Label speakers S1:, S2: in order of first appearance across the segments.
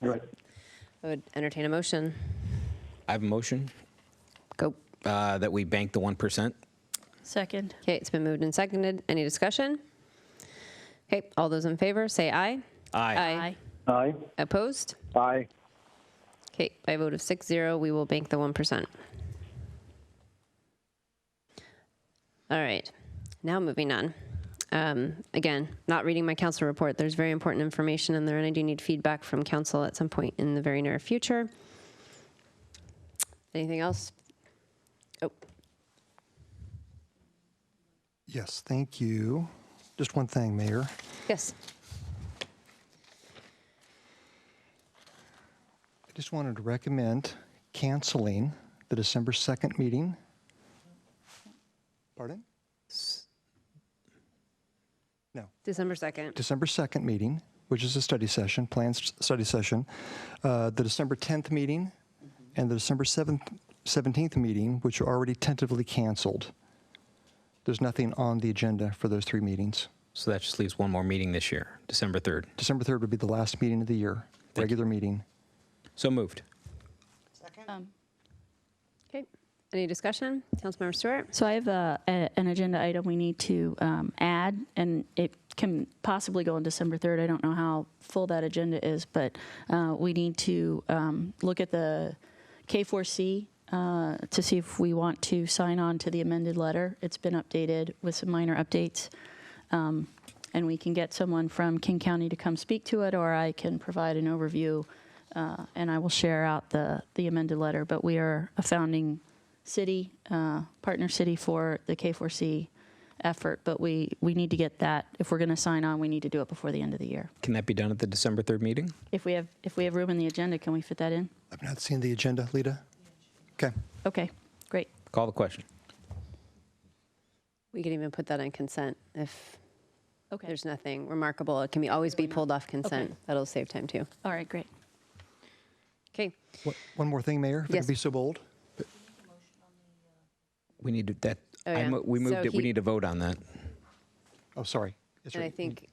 S1: Right.
S2: I would entertain a motion.
S3: I have a motion
S2: Go.
S3: uh, that we bank the 1%.
S4: Second.
S2: Okay, it's been moved and seconded. Any discussion? Okay, all those in favor, say aye.
S3: Aye.
S1: Aye.
S2: Opposed?
S1: Aye.
S2: Okay, by a vote of six zero, we will bank the 1%. All right, now moving on. Um, Again, not reading my council report, there's very important information in there, and I do need feedback from council at some point in the very near future. Anything else? Oh,
S5: Yes, thank you. Just one thing, Mayor.
S2: yes,
S5: I just wanted to recommend canceling the December 2nd meeting. Pardon? No,
S2: December 2nd.
S5: December 2nd meeting, which is a study session, planned s- study session, uh, the December 10th meeting, and the December 7th 17th meeting, which are already tentatively canceled. There's nothing on the agenda for those three meetings.
S3: So that just leaves one more meeting this year, December 3rd.
S5: December 3rd would be the last meeting of the year, regular meeting.
S3: So moved.
S2: Okay, any discussion? Councilmember Stewart?
S4: So I have a, a, an agenda item we need to um, add, and it can possibly go on December 3rd. I don't know how full that agenda is, but uh, we need to um, look at the K4C uh, to see if we want to sign on to the amended letter. It's been updated with some minor updates. Um, and we can get someone from King County to come speak to it, or I can provide an overview uh, and I will share out the, the amended letter. But we are a founding city, uh, partner city for the K4C effort, but we, we need to get that. If we're going to sign on, we need to do it before the end of the year.
S3: Can that be done at the December 3rd meeting?
S4: If we have, if we have room in the agenda, can we fit that in?
S5: I've not seen the agenda, Lita. Okay.
S4: Okay, great.
S3: Call the question.
S2: We could even put that on consent if
S4: Okay,
S2: there's nothing remarkable. It can be, always be pulled off consent. That'll save time too.
S4: all right, great.
S2: Okay,
S5: What- One more thing, Mayor, if I
S2: Yes.
S5: could be so bold.
S3: We need to, that,
S2: Oh,
S3: I
S2: yeah.
S3: mo- we moved
S2: So
S3: it, we
S2: he-
S3: need to vote on that.
S5: Oh, sorry. Yes,
S2: and
S5: sir.
S2: I think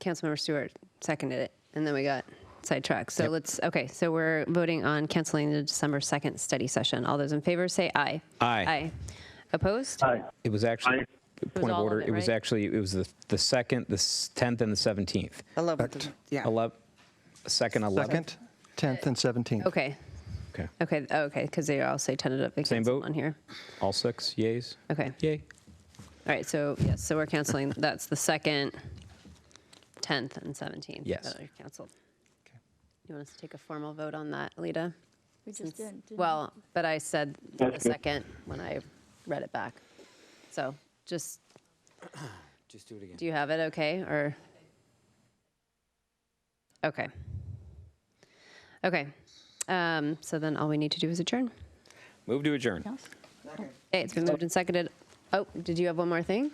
S2: Councilmember Stewart seconded it, and then we got sidetracked. So let's, okay, so we're voting on canceling the December 2nd study session. All those in favor say aye.
S3: Aye.
S2: Aye. Opposed?
S1: Aye.
S3: It was actually,
S1: Aye.
S4: was
S3: point of
S4: all of
S3: order,
S4: it,
S3: it was
S4: right?
S3: actually, it was the the 2nd, the s- 10th, and the 17th.
S6: 11th, yeah.
S3: 11th, 2nd, 11th.
S5: Second, 10th, and 17th.
S2: Okay,
S3: Okay.
S2: okay, okay, because they all say tentatively
S3: Same
S2: cancel
S3: vote?
S2: on here.
S3: All six, yays?
S2: Okay.
S3: Yay.
S2: All right, so, yes, so we're canceling, that's the 2nd, 10th, and 17th.
S3: Yes.
S2: that are Canceled. You want us to take a formal vote on that, Lita?
S4: We just did.
S2: Well, but I said the
S1: That's good.
S2: second when I read it back. So just,
S3: Just do it again.
S2: do you have it okay, or? Okay. Okay, um, so then all we need to do is adjourn.
S3: Move to adjourn.
S2: Okay, it's been moved and seconded. Oh, did you have one more thing?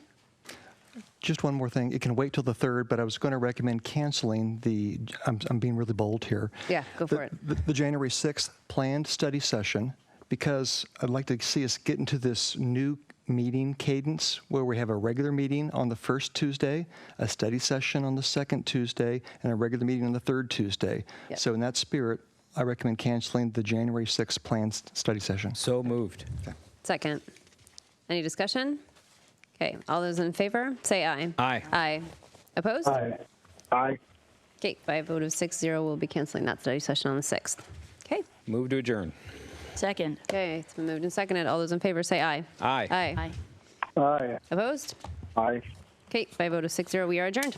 S5: Just one more thing. It can wait till the 3rd, but I was going to recommend canceling the, I'm, I'm being really bold here.
S2: Yeah, go
S5: The-
S2: for it.
S5: The, the January 6th planned study session, because I'd like to see us get into this new meeting cadence where we have a regular meeting on the first Tuesday, a study session on the second Tuesday, and a regular meeting on the third Tuesday.
S2: Yep.
S5: So in that spirit, I recommend canceling the January 6th planned s- study session.
S3: So moved.
S2: Second. Any discussion? Okay, all those in favor, say aye.
S3: Aye.
S2: Aye. Opposed?
S1: Aye. Aye.
S2: Okay, by a vote of six zero, we'll be canceling that study session on the 6th. Okay.
S3: Move to adjourn.
S4: Second.
S2: Okay, it's been moved and seconded. All those in favor say aye.
S3: Aye.
S2: Aye.
S4: Aye.
S1: Aye.
S2: Opposed?
S1: Aye.
S2: Okay, by a vote of six zero, we are adjourned.